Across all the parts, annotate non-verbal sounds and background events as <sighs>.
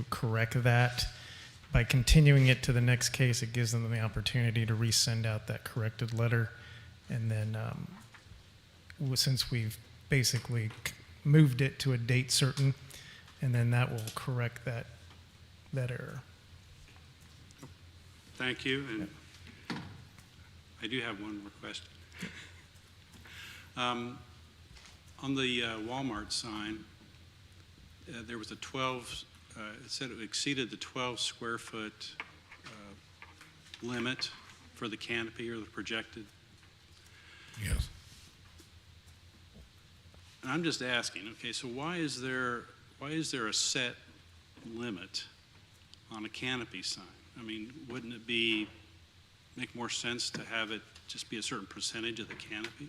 to correct that. By continuing it to the next case, it gives them the opportunity to resend out that corrected letter. And then, um, w- since we've basically c- moved it to a date certain, and then that will correct that, that error. Thank you, and I do have one request. Um, On the uh, Walmart sign, uh, there was a 12, uh, it said it exceeded the 12 square foot uh, limit for the canopy or the projected. Yes. And I'm just asking, okay, so why is there, why is there a set limit on a canopy sign? I mean, wouldn't it be, make more sense to have it just be a certain percentage of the canopy?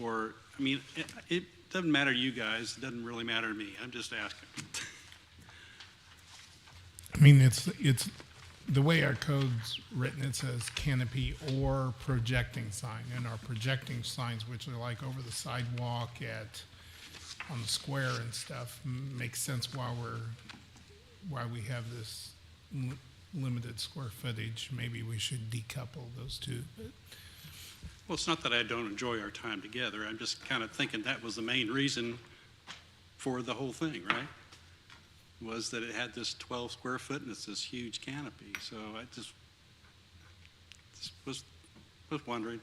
Or, I mean, it, it doesn't matter to you guys, it doesn't really matter to me, I'm just asking. I mean, it's, it's, the way our code's written, it says canopy or projecting sign. And our projecting signs, which are like over the sidewalk at, on the square and stuff, m- makes sense why we're, why we have this li- limited square footage. Maybe we should decouple those two. but- Well, it's not that I don't enjoy our time together, I'm just kind of thinking that was the main reason for the whole thing, right? Was that it had this 12 square foot and it's this huge canopy, so I just, just was, was wondering.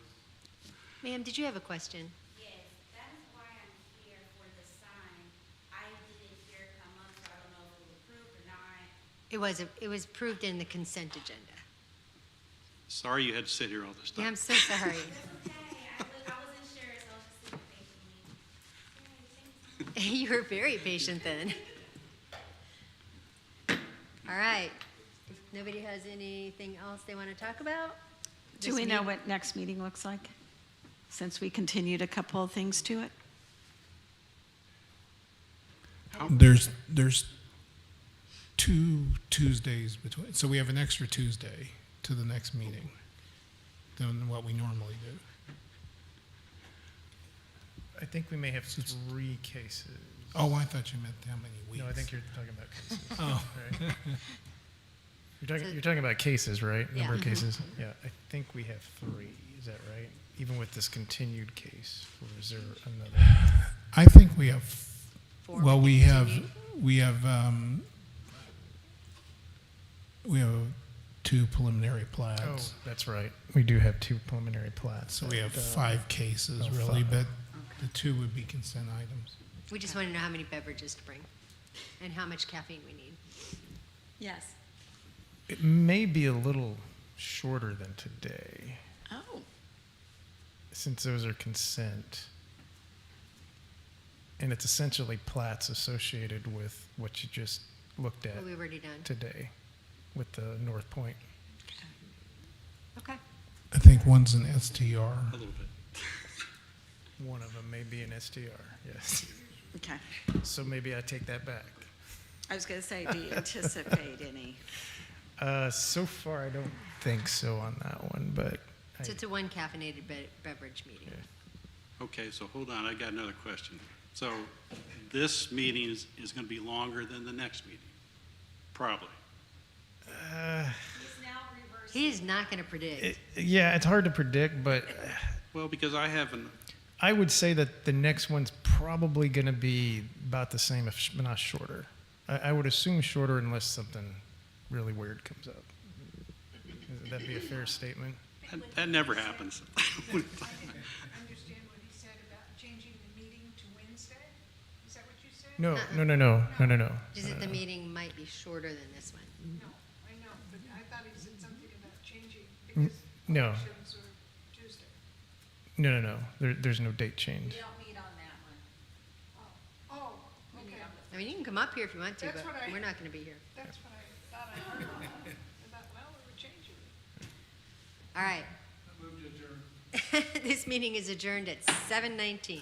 Ma'am, did you have a question? Yes, that is why I'm here for the sign. I didn't hear it come up, so I don't know if it was approved or not. It was, it was approved in the consent agenda. Sorry you had to sit here all this Yeah, I'm time. so sorry. Okay, I was- I wasn't sure, so I was just super patient. Yay, thank <laughs> you. You were very patient then. All right. If nobody has anything else they want to talk about? Do this we know meet- what next meeting looks like? Since we continued a couple of things to it? There's, there's two Tuesdays between, so we have an extra Tuesday to the next meeting than what we normally do. I think we may have three cases. Oh, I thought you meant how many weeks. No, I think you're talking about <laughs> cases. Oh. right? You're So- talking, you're talking about cases, right? Number of Yeah. Mhm. cases? Yeah, I think we have three, is that right? Even with this continued case, or is there <sighs> another? I think we have, Four well, we we have, we have, um, we have two preliminary Oh, plats. that's right. We do have two preliminary plats. So we have that, uh, five cases oh, really, five. but the two would be consent items. We just want to know how many beverages to bring and how much caffeine we need. Yes. It may be a little shorter than today, Oh, since those are consent. And it's essentially plats associated with what you just looked at We've already done. today with the North Point. Okay. I think one's an STR. A little bit. One of them may be an STR, yes. okay. So maybe I take that back. I was going to say, do you anticipate any? Uh, so far, I don't think so on that one, but I, So it's a one caffeinated be- beverage meeting. Okay, so hold on, I got another question. So this meeting is, is going to be longer than the next meeting, probably. It's now reversed. He is not going to predict. it, yeah, it's hard to predict, but Well, because I haven't, I would say that the next one's probably going to be about the same, if sh- not shorter. I, I would assume shorter unless something really weird comes up. Would that be a fair statement? that, that never happens. I didn't understand what he said about changing the meeting to Wednesday? Is that what you said? No, no, no, no, no, no, no. Just Uh. that the meeting might be shorter than this one. No, I know, but I thought he said something about changing because Mm-hmm. Mm, no. elections are Tuesday. No, no, no. There, there's no date change. don't meet on that one. Oh, okay, I mean, you can come up here if you want to, That's but what I- we're not going to be here. that's what I thought I heard. I thought, well, we were changing it. <laughs> All right. This meeting is adjourned at 7:19.